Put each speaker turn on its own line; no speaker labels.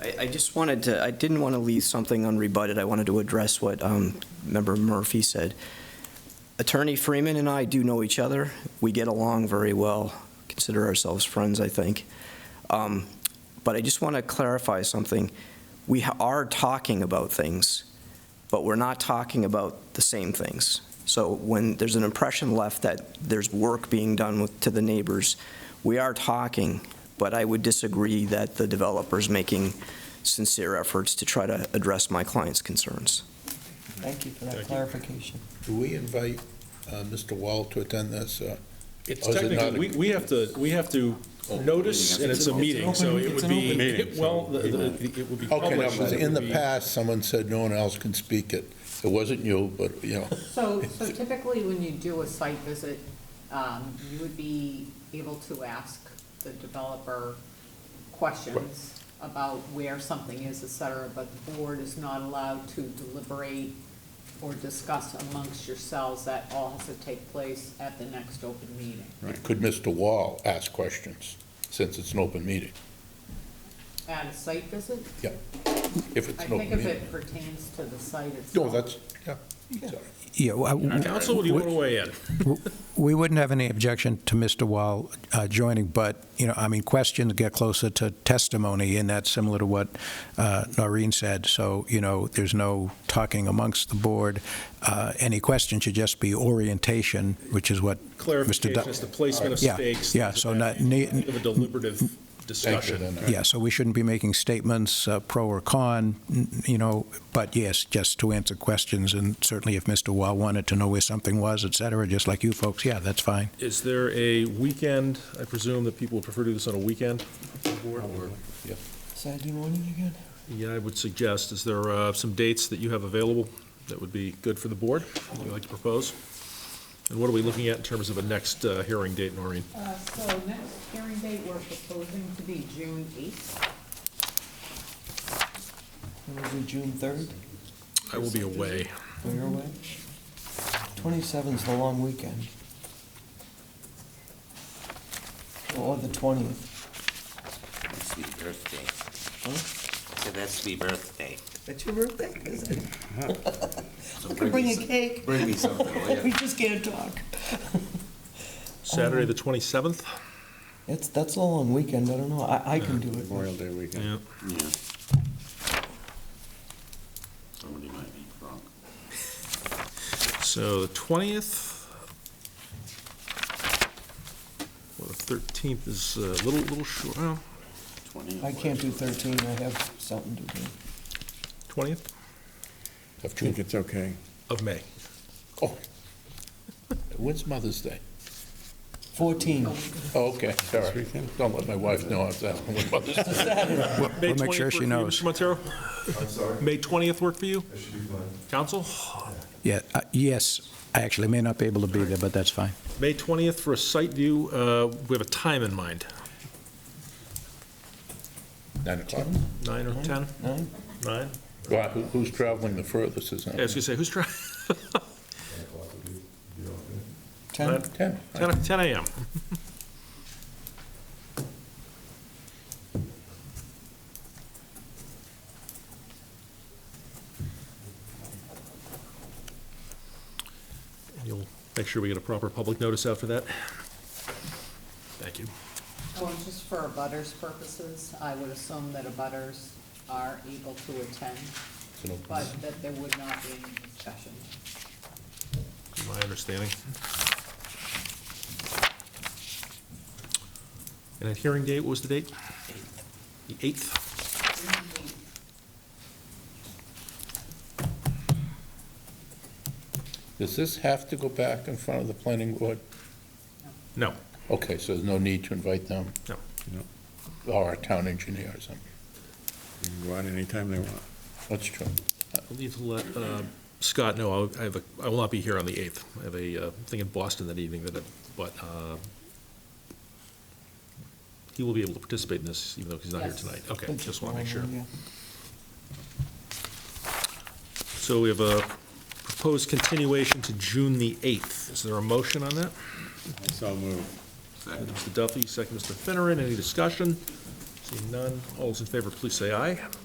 I just wanted to, I didn't want to leave something unrebutted. I wanted to address what um, Member Murphy said. Attorney Freeman and I do know each other. We get along very well, consider ourselves friends, I think. Um, But I just want to clarify something. We ha- are talking about things, but we're not talking about the same things. So when there's an impression left that there's work being done with, to the neighbors, we are talking, but I would disagree that the developer's making sincere efforts to try to address my client's concerns.
Thank you for
Thank
that
you.
clarification.
Do we invite uh, Mr. Wall to attend this? uh,
It's
Or is it not a- Oh.
technically, we, we have to, we have to notice, and it's a meeting, so it would be, it- well, the- the- it would
Okay,
be
now,
published.
because
it
in
would
the
be-
past, someone said no one else can speak it. It wasn't you, but, you know,
So, so typically when you do a site visit, um, you would be able to ask the developer questions about where something is, et cetera, but the board is not allowed to deliberate or discuss amongst yourselves. That all has to take place at the next open meeting.
could Mr. Wall ask questions, since it's an open meeting?
At a site visit,
If it's
I
an open
think if
meeting.
it pertains to the site
No,
itself.
that's, yeah.
Yeah, well, I-
Counsel, what do you want to weigh in?
we wouldn't have any objection to Mr. Wall uh, joining, but, you know, I mean, questions get closer to testimony, and that's similar to what uh, Noreen said, so, you know, there's no talking amongst the board. Uh, Any question should just be orientation, which is what Mr.
Clarification as to
Duff...
placement of
Yeah,
stakes.
yeah,
things
so
of that
not
nature,
ne-
Of a deliberative discussion.
then.
Yeah, so we shouldn't be making statements, uh, pro or con, n- you know, but yes, just to answer questions, and certainly if Mr. Wall wanted to know where something was, et cetera, just like you folks, yeah, that's fine.
Is there a weekend, I presume that people would prefer to do this on a weekend?
Saturday morning again?
Yeah, I would suggest, is there uh, some dates that you have available that would be good for the board, that you'd like to propose? And what are we looking at in terms of a next uh, hearing date, Noreen?
Uh, so next hearing date, we're proposing to be June eighth.
It was it, June 3rd,
I will be away.
for your way? 27th's the long weekend. Or the 20th.
That's the birthday. So that's the birthday.
That's your birthday, is it?
So
I could bring
me
a
some-
cake.
Bring me something, will
We
ya?
just can't talk.
Oh.
Saturday, the 27th?
It's, that's a long weekend, I don't know, I, I can do it.
Memorial Day weekend.
Yeah.
Yeah. Somebody might be wrong.
So the 20th. Well, the 13th is a little, little short, well,
Twenty.
I can't do 13, I have something to do.
20th
I think it's okay.
of May.
Oh, when's Mother's Day?
14,
Oh, okay, sorry. Don't let my wife know I was asking when Mother's Day.
May
we'll make
20th
sure she
work
knows.
for you, Mr. Montero,
I'm sorry,
May 20th work for you?
that should be fine.
Council?
Yeah, uh, yes, I actually may not be able to be there, but that's fine.
May 20th for a site view, uh, we have a time in mind,
Nine o'clock.
9 or 10?
9?
9?
Well, who- Who's traveling the furthest is that?
Yeah, I was gonna say, who's trying,
Nine o'clock would be, you know, good.
10?
10.
10 10 AM? You'll make sure we get a proper public notice after that? Thank you.
Well, just for abutters purposes, I would assume that abutters are able to attend,
It's an open-
but that there would not be any discussion.
My understanding. And that hearing date, what was the date? The 8th?
Does this have to go back in front of the planning board?
No,
Okay, so there's no need to invite them?
No.
Or our town engineer or something?
Go out anytime they want.
That's true.
I'll need to let uh, Scott know, I'll- I have, a- I will not be here on the 8th. I have a uh, thing in Boston that evening that, I- but uh, he will be able to participate in this, even though he's not here
Yes.
tonight. Okay, just want to make sure.
Yeah.
So we have a proposed continuation to June the 8th. Is there a motion on that?
So moved.
Second.
Mr. Duffy, second Mr. Finneran, any discussion? Seeing none, all those in favor, please say aye.